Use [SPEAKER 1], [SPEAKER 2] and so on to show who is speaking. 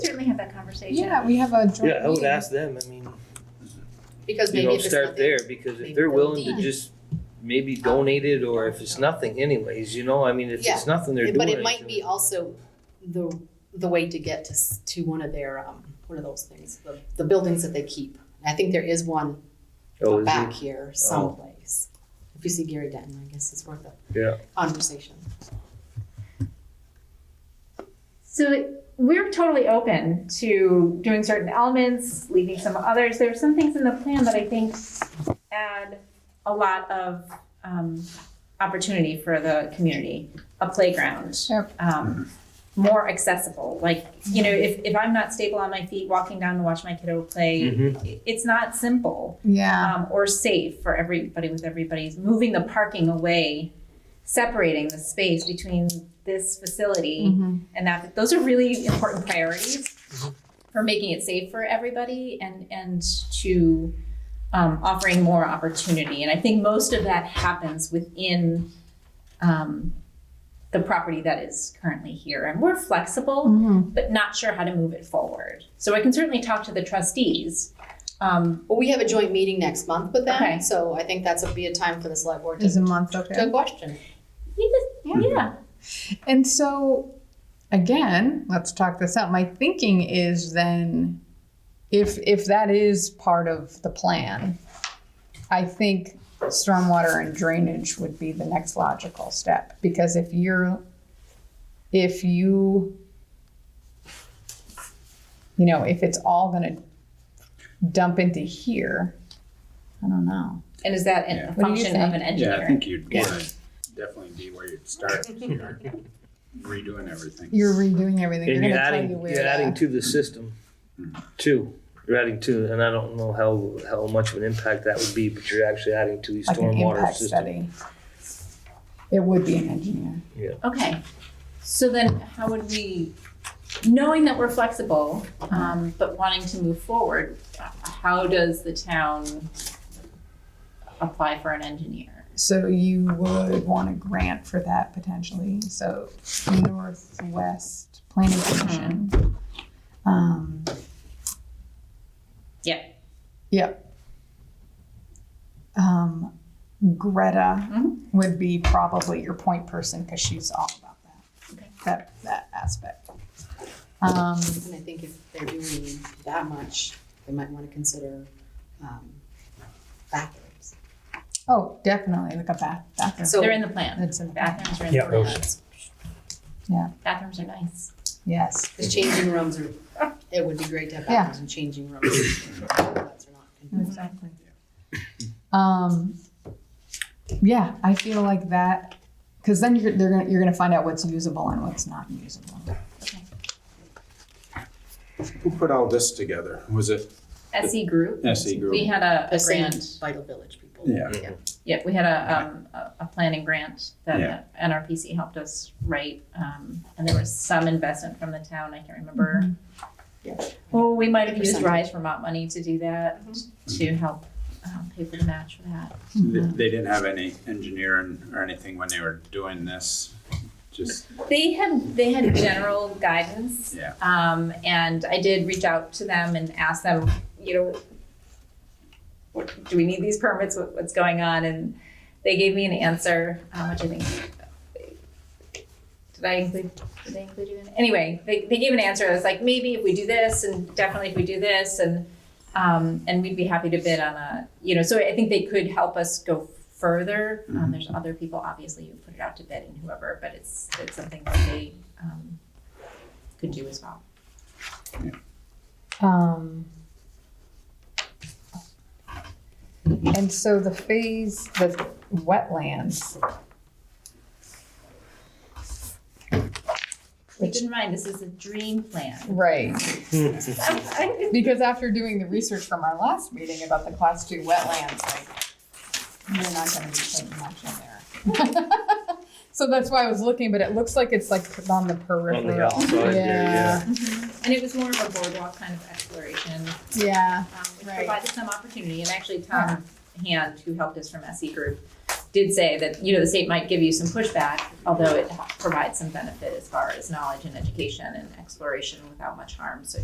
[SPEAKER 1] conversation.
[SPEAKER 2] Yeah, we have a joint
[SPEAKER 3] Yeah, I would
[SPEAKER 2] meeting.
[SPEAKER 3] ask them, I mean,
[SPEAKER 1] Because
[SPEAKER 3] you
[SPEAKER 1] maybe
[SPEAKER 3] know,
[SPEAKER 1] if it's
[SPEAKER 3] start
[SPEAKER 1] nothing,
[SPEAKER 3] there, because
[SPEAKER 1] maybe
[SPEAKER 3] if they're
[SPEAKER 1] they'll
[SPEAKER 3] willing
[SPEAKER 1] leave.
[SPEAKER 3] to just maybe donate it, or if it's nothing anyways, you know, I mean, if it's nothing, they're doing it.
[SPEAKER 1] but it might be also the, the way to get to, s- to one of their, um, one of those things, the, the buildings that they keep. I think there is one
[SPEAKER 3] Oh, is
[SPEAKER 1] back
[SPEAKER 3] it?
[SPEAKER 1] here someplace. If you see Gary Denton, I guess it's worth a
[SPEAKER 3] Yeah.
[SPEAKER 1] conversation.
[SPEAKER 4] So it- we're totally open to doing certain elements, leaving some others. There are some things in the plan that I think add a lot of um, opportunity for the community. A playground,
[SPEAKER 2] Sure.
[SPEAKER 4] um, more accessible. Like you know, if, if I'm not stable on my feet, walking down to watch my kiddo play,
[SPEAKER 3] Mhm.
[SPEAKER 4] i- it's not simple
[SPEAKER 2] Yeah,
[SPEAKER 4] um, or safe for everybody with everybody's moving the parking away, separating the space between this facility
[SPEAKER 2] Mhm.
[SPEAKER 4] and that those are really important priorities for making it safe for everybody and and to um, offering more opportunity. And I think most of that happens within um, the property that is currently here. And we're flexible
[SPEAKER 2] Mhm.
[SPEAKER 4] but not sure how to move it forward. So I can certainly talk to the trustees. Um,
[SPEAKER 1] Well, we have a joint meeting next month with
[SPEAKER 4] Okay.
[SPEAKER 1] them, so I think that's a, be a time for the select board
[SPEAKER 2] is a
[SPEAKER 1] to,
[SPEAKER 2] month
[SPEAKER 1] to
[SPEAKER 2] okay?
[SPEAKER 1] question.
[SPEAKER 4] you just- yeah.
[SPEAKER 2] And so, again, let's talk this out. My thinking is then, if if that is part of the plan, I think stormwater and drainage would be the next logical step because if you're if you you know if it's all going to dump into here i don't know
[SPEAKER 4] And is that
[SPEAKER 5] Yeah.
[SPEAKER 4] a
[SPEAKER 2] What do you
[SPEAKER 4] function of an
[SPEAKER 5] Yeah, I
[SPEAKER 4] engineer?
[SPEAKER 5] think you'd
[SPEAKER 3] Yeah.
[SPEAKER 5] wanna definitely be where you'd start, if you're redoing everything.
[SPEAKER 2] you're redoing everything
[SPEAKER 3] And
[SPEAKER 2] They're
[SPEAKER 3] you're
[SPEAKER 2] gonna tell
[SPEAKER 3] adding,
[SPEAKER 2] you where
[SPEAKER 3] you're
[SPEAKER 2] to-
[SPEAKER 3] adding to the system, too. You're adding to, and I don't know how, how much of an impact that would be, but you're actually adding to the
[SPEAKER 2] like an
[SPEAKER 3] stormwater
[SPEAKER 2] impact
[SPEAKER 3] system.
[SPEAKER 2] study. It would be an engineer.
[SPEAKER 4] Okay, so then how would we, knowing that we're flexible, um, but wanting to move forward, how does the town apply for an engineer?
[SPEAKER 2] So you would want a grant for that potentially, so Northwest Planning Commission. Um,
[SPEAKER 4] Yeah.
[SPEAKER 2] Yep. Um, Greta
[SPEAKER 4] Mhm.
[SPEAKER 2] would be probably your point person, cause she's all about that,
[SPEAKER 4] Okay.
[SPEAKER 2] that, that aspect. Um,
[SPEAKER 1] And I think if they're doing that much, they might wanna consider, um, bathrooms.
[SPEAKER 2] oh, definitely, like a bath, bathroom.
[SPEAKER 1] So-
[SPEAKER 4] They're in the plan,
[SPEAKER 2] That's in the back,
[SPEAKER 4] bathrooms are in
[SPEAKER 3] Yeah,
[SPEAKER 4] the plan.
[SPEAKER 1] those-
[SPEAKER 2] Yeah.
[SPEAKER 4] Bathrooms are nice.
[SPEAKER 2] yes.
[SPEAKER 1] Cause changing rooms are, it would be great to have
[SPEAKER 2] Yeah.
[SPEAKER 1] bathrooms and changing rooms. Toilets are not convenient.
[SPEAKER 2] Exactly. Um, yeah, I feel like that, because then you're, they're gonna, you're gonna find out what's usable and what's not usable.
[SPEAKER 5] Who put all this together? Was it
[SPEAKER 4] SE E Group,
[SPEAKER 5] SE
[SPEAKER 4] we
[SPEAKER 5] E Group?
[SPEAKER 4] had a,
[SPEAKER 1] The
[SPEAKER 4] a
[SPEAKER 1] same
[SPEAKER 4] grant,
[SPEAKER 1] Vital Village people.
[SPEAKER 5] Yeah,
[SPEAKER 4] yeah, we had a, um, a, a planning grant
[SPEAKER 5] Yeah.
[SPEAKER 4] that NRPC helped us write. Um, and there was some investment from the town, I can't remember Well, we might have used
[SPEAKER 1] Percentage.
[SPEAKER 4] Rise Vermont money to do that, to help um, pay for the match for that.
[SPEAKER 5] they they didn't have any engineering or anything when they were doing this, just,
[SPEAKER 4] They had, they had general guidance.
[SPEAKER 5] Yeah.
[SPEAKER 4] Um, and I did reach out to them and ask them, you know, what, do we need these permits, what, what's going on? And they gave me an answer, um, which I think, did I include, did they include you in? it? Anyway, they, they gave an answer, it was like, maybe if we do this, and definitely if we do this, and, um, and we'd be happy to bid on a, you know, so I think they could help us go further. Um,
[SPEAKER 5] Mhm.
[SPEAKER 4] there's other people, obviously, who put it out to bid and whoever, but it's, it's something that they, um, could do as well.
[SPEAKER 2] Um, and so the phase, the wetlands,
[SPEAKER 4] Keep in mind, this is a dream plan.
[SPEAKER 2] right, because after doing the research from our last meeting about the class two wetlands, like, you're not gonna be putting much in there. So that's why I was looking, but it looks like it's like on the peripheral.
[SPEAKER 3] outside there, yeah.
[SPEAKER 4] And it was more of a boardwalk kind of exploration,
[SPEAKER 2] Yeah.
[SPEAKER 4] um, which
[SPEAKER 2] Right.
[SPEAKER 4] provided some opportunity. And actually, Tom Hand, who helped us from SE Group, did say that, you know, the state might give you some pushback, although it provides some benefit as far as knowledge and education and exploration without much harm. So